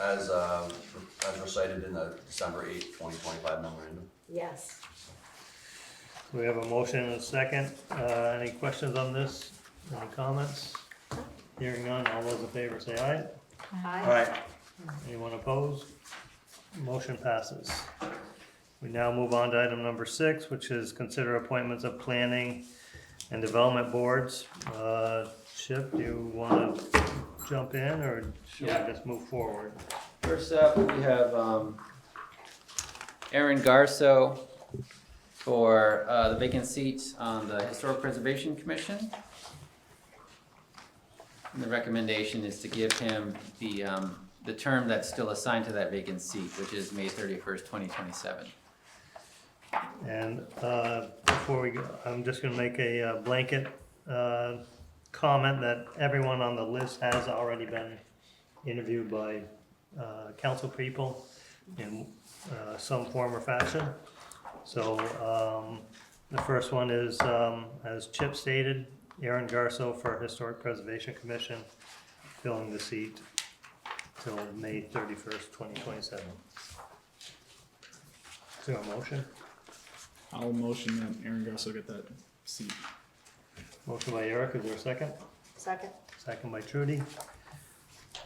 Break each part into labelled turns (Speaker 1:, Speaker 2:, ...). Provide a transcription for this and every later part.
Speaker 1: as, um, as recited in the December eighth, twenty twenty-five memorandum.
Speaker 2: Yes.
Speaker 3: We have a motion and a second. Uh, any questions on this? Any comments? Hearing none, all those in favor say aye.
Speaker 2: Aye.
Speaker 4: Alright,
Speaker 3: Anyone opposed? Motion passes. We now move on to item number six, which is consider appointments of planning and development boards. Uh, Chip, do you wanna jump in or should
Speaker 4: Yeah.
Speaker 3: we just move forward?
Speaker 4: first up, we have, um, Aaron Garso for, uh, the vacant seat on the Historic Preservation Commission. And the recommendation is to give him the, um, the term that's still assigned to that vacant seat, which is May thirty-first, twenty twenty-seven.
Speaker 3: And uh, before we go, I'm just gonna make a uh, blanket uh, comment that everyone on the list has already been interviewed by uh, council people in uh, some form or fashion. So um, the first one is, um, as Chip stated, Aaron Garso for Historic Preservation Commission, filling the seat till May thirty-first, twenty twenty-seven. Is there a motion?
Speaker 5: I'll motion that Aaron Grosso get that seat.
Speaker 3: Motion by Eric, is there a second?
Speaker 2: Second.
Speaker 3: Second by Trudy.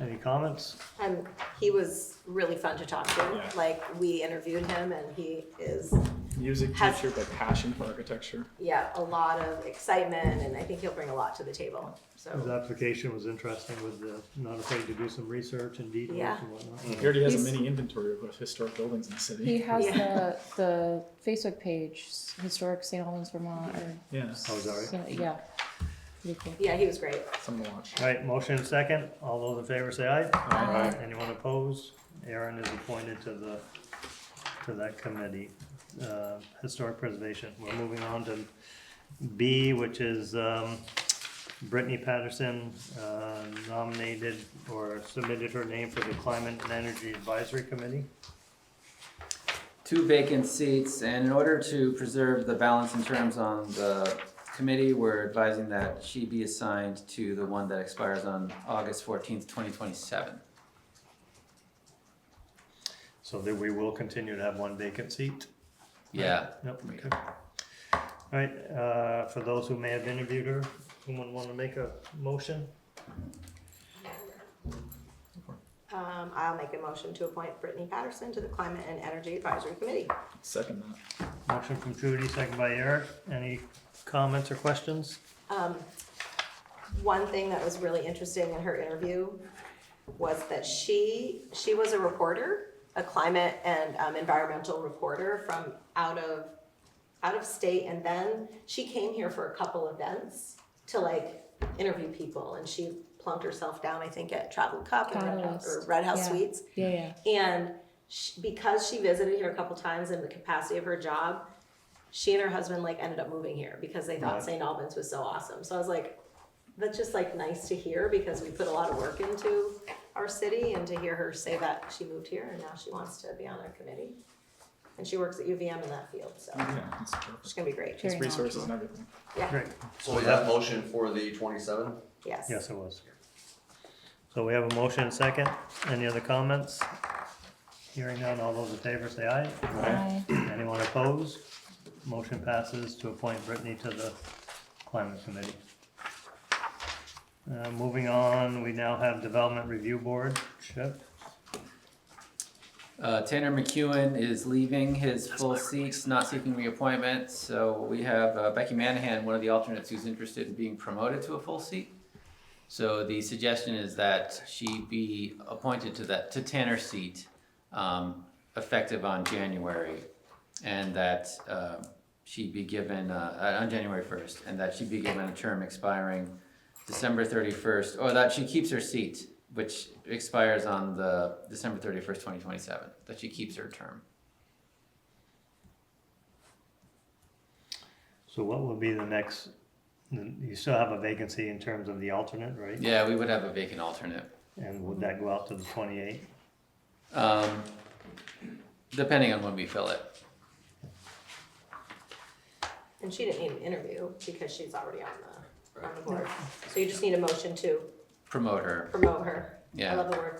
Speaker 3: Any comments?
Speaker 2: And he was really fun to talk to.
Speaker 5: Yeah.
Speaker 2: Like, we interviewed him and he is,
Speaker 5: Music
Speaker 2: Has-
Speaker 5: teacher, but passion for architecture.
Speaker 2: yeah, a lot of excitement and I think he'll bring a lot to the table.
Speaker 3: His
Speaker 2: So,
Speaker 3: application was interesting with the, not afraid to do some research and details
Speaker 2: Yeah.
Speaker 3: and whatnot.
Speaker 5: He already has a
Speaker 6: He's-
Speaker 5: mini inventory of historic buildings in the
Speaker 6: He
Speaker 5: city.
Speaker 6: has
Speaker 2: Yeah.
Speaker 6: the the Facebook page, Historic St. Albans, Vermont. Or,
Speaker 5: Yeah,
Speaker 3: Oh, sorry.
Speaker 6: so- yeah. Pretty cool.
Speaker 2: yeah, he was great.
Speaker 5: something to watch.
Speaker 3: All right, motion and second. All those in favor say aye.
Speaker 6: Aye.
Speaker 3: Anyone opposed? Aaron is appointed to the, to that committee, uh, Historic Preservation. We're moving on to B, which is um, Brittany Patterson uh, nominated or submitted her name for the Climate and Energy Advisory Committee.
Speaker 4: two vacant seats, and in order to preserve the balance in terms on the committee, we're advising that she be assigned to the one that expires on August fourteenth, twenty twenty-seven.
Speaker 3: So that we will continue to have one vacant seat?
Speaker 4: Yeah,
Speaker 3: Yep,
Speaker 4: Yeah.
Speaker 3: okay. All right, uh, for those who may have interviewed her, someone want to make a motion?
Speaker 2: Um, I'll make a motion to appoint Brittany Patterson to the Climate and Energy Advisory Committee.
Speaker 5: Second that.
Speaker 3: Motion from Trudy, second by Eric. Any comments or questions?
Speaker 2: Um, one thing that was really interesting in her interview was that she, she was a reporter, a climate and um, environmental reporter from out of, out of state, and then she came here for a couple events to like interview people, and she plunked herself down, I think, at Travel Cup and Red House, or
Speaker 6: Catalyst,
Speaker 2: Red House
Speaker 6: yeah.
Speaker 2: Suites,
Speaker 6: Yeah, yeah.
Speaker 2: and she, because she visited here a couple times in the capacity of her job, she and her husband like ended up moving here because they thought
Speaker 3: Right.
Speaker 2: St. Albans was so awesome. So I was like, that's just like nice to hear because we put a lot of work into our city and to hear her say that she moved here and now she wants to be on our committee. And she works at UVM in that field, so
Speaker 3: Mm-hmm.
Speaker 5: Yeah, it's
Speaker 2: it's
Speaker 5: perfect.
Speaker 2: gonna be great.
Speaker 6: Very
Speaker 5: It's resources
Speaker 6: knowledgeable.
Speaker 5: and everything.
Speaker 2: Yeah,
Speaker 3: Great,
Speaker 1: So was that motion for the twenty-seven?
Speaker 2: yes.
Speaker 3: yes, it was. So we have a motion and second. Any other comments? Hearing none, all those in favor say aye.
Speaker 6: Aye.
Speaker 3: Anyone opposed? Motion passes to appoint Brittany to the Climate Committee. Uh, moving on, we now have Development Review Board, Chip.
Speaker 4: Uh, Tanner McEwen is leaving his full seat, not seeking reappointment, so we have uh, Becky Manahan, one of the alternates who's interested in being promoted to a full seat. So the suggestion is that she be appointed to that, to Tanner's seat, um, effective on January. And that, um she be given, uh, uh, on January first, and that she be given a term expiring December thirty-first, or that she keeps her seat, which expires on the December thirty-first, twenty twenty-seven, that she keeps her term.
Speaker 3: So what will be the next, you still have a vacancy in terms of the alternate, right?
Speaker 4: Yeah, we would have a vacant alternate,
Speaker 3: And would that go out to the twenty-eight?
Speaker 4: um, depending on when we fill it.
Speaker 2: And she didn't need an interview because she's already on the, on the board. So you just need a motion to
Speaker 4: Promote her,
Speaker 2: promote her. I
Speaker 4: yeah.
Speaker 2: love the word